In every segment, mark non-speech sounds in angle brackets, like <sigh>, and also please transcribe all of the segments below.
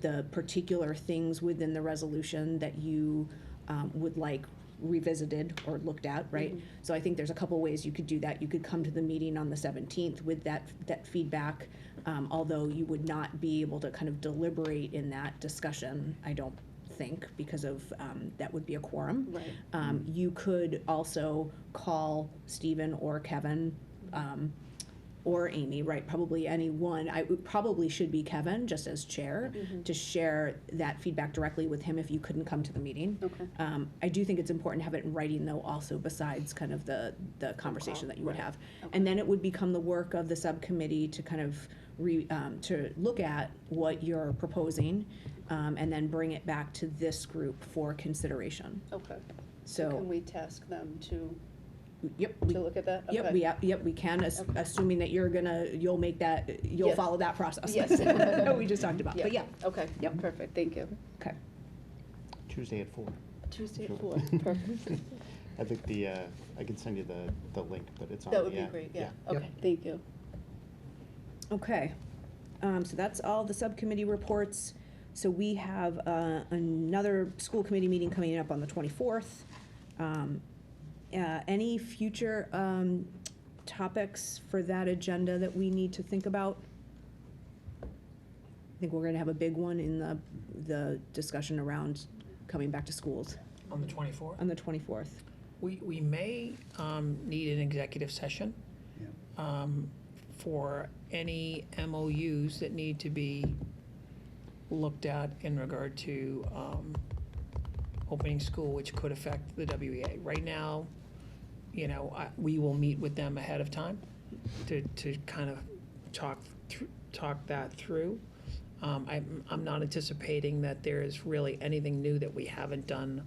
the particular things within the resolution that you um, would like revisited or looked at, right? So I think there's a couple ways you could do that. You could come to the meeting on the 17th with that, that feedback, um, although you would not be able to kind of deliberate in that discussion, I don't think, because of, um, that would be a quorum. Right. Um, You could also call Stephen or Kevin um, or Amy, right? Probably any one. I it probably should be Kevin, just as chair, to share that feedback directly with him if you couldn't come to the meeting. Okay. Um, I do think it's important to have it in writing, though, also besides kind of the, the conversation that you would have. And then it would become the work of the subcommittee to kind of re, um, to look at what you're proposing um, and then bring it back to this group for consideration. Okay. So. Can we task them to, Yep. we- to look at that? Yep, Okay. we, yep, we can, as- Oh, Okay. assuming that you're gonna, you'll make that, you'll Yes. follow that process. Yes. <laughs> That we just talked about, but yeah, Okay. Yep. Perfect, thank you. okay. Tuesday at four. Tuesday at Sure. <laughs> four, perfect. I think the, uh, I can send you the, the link, but it's on. That would the be app. great, yeah. Okay, thank you. Okay, um, so that's all the subcommittee reports. So we have, uh, another school committee meeting coming up on the twenty-fourth. Um, uh, any future, um, topics for that agenda that we need to think about? I think we're gonna have a big one in the, the discussion around coming back to schools. On the 24th? on the 24th. We, we may um, need an executive session um, for any MOUs that need to be looked at in regard to um, opening school, which could affect the WEA. Right now, you know, I- we will meet with them ahead of time to, to kind of talk, thr- talk that through. Um, I'm, I'm not anticipating that there is really anything new that we haven't done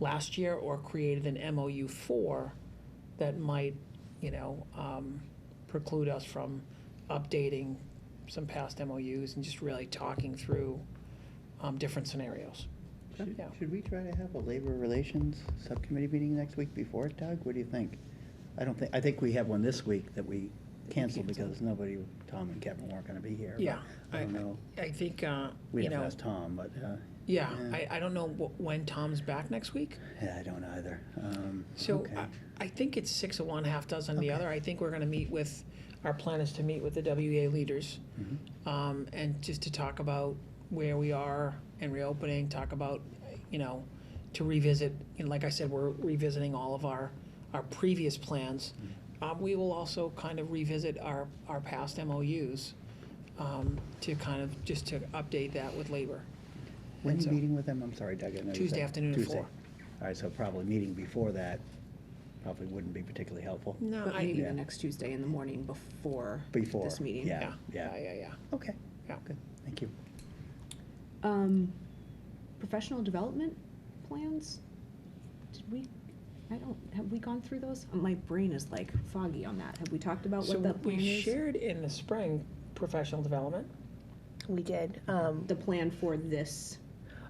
last year or created an MOU for that might, you know, um, preclude us from updating some past MOUs and just really talking through um, different scenarios. Should Yeah. should we try to have a labor relations subcommittee meeting next week before it, Doug? What do you think? I don't think, I think we have one this week that we canceled because nobody, Tom and Kevin weren't gonna be here. but Yeah, I don't know. I think, uh, We'd you have to know, ask Tom, but, uh, yeah, Yeah. I, I don't know wh- when Tom's back next week. yeah, I don't either. Um, So uh, okay. I, I think it's six of one, half dozen of the other. I think we're going to meet with, our plan is to meet with the WEA leaders um, and just to talk about where we are and reopening, talk about, you know, to revisit, and like I said, we're revisiting all of our, our previous plans. Um, we will also kind of revisit our, our past MOUs um, to kind of, just to update that with labor. When are you so- meeting with them? I'm sorry, Doug. I know you Tuesday said- afternoon at Tuesday. four. All right, so probably meeting before that probably wouldn't be particularly helpful. No, But I, maybe the yeah, Yeah. next Tuesday in the morning before Before, this meeting. yeah. yeah, yeah, Yeah. yeah, Okay, yeah. good, thank you. Um, professional development plans? Did we, I don't, have we gone through those? My brain is like foggy on that. Have we talked about So what that plan we is? shared in the spring professional development. We did. Um, The plan for this,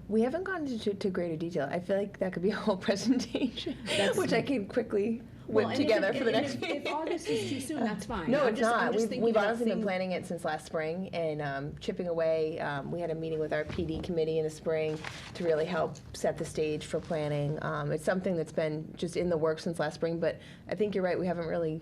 we haven't gone into to greater detail. I feel like that could be a whole <laughs> presentation, which I could quickly whip Well, and if- together for the and next if- <laughs> meeting. If August is too soon, that's fine. No, I'm it's just- I'm not. just We've, thinking we've about honestly been things- planning it since last spring and um, chipping away. Um, we had a meeting with our PD committee in the spring to really help set the stage for planning. Um, it's something that's been just in the works since last spring, but I think you're right. We haven't really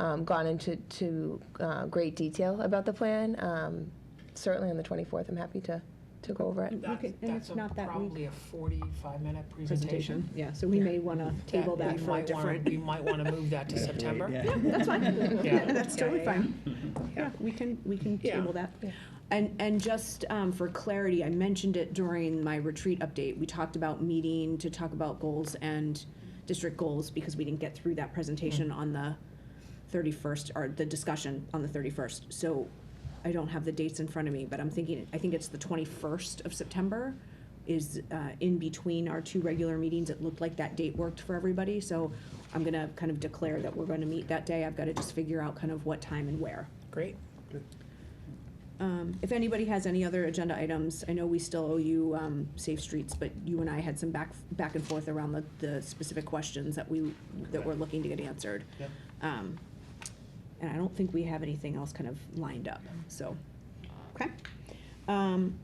um, gone into to, uh, great detail about the plan. Um, certainly on the 24th, I'm happy to, to go over it. Look at- That's, and that's it's a- not that week. probably a forty-five minute Presentation, presentation. yeah, so we may want to table we that for a might <laughs> wanna- different. We might want to move that to September. Yeah. That's fine. Yeah. <laughs> That's totally Yeah, yeah, fine. Yeah, we can, we can Yeah. table that. And, and just um, for clarity, I mentioned it during my retreat update. We talked about meeting to talk about goals and district goals because we didn't get through that presentation on the 31st, or the discussion on the 31st. So I don't have the dates in front of me, but I'm thinking, I think it's the 21st of September is uh, in between our two regular meetings. It looked like that date worked for everybody, so I'm going to kind of declare that we're going to meet that day. I've got to just figure out kind of what time and where. Great. Um, If anybody has any other agenda items, I know we still owe you um, Safe Streets, but you and I had some back, back and forth around the, the specific questions that we, that we're looking to get answered. Yep. Um, And I don't think we have anything else kind of lined up, so, okay. Um,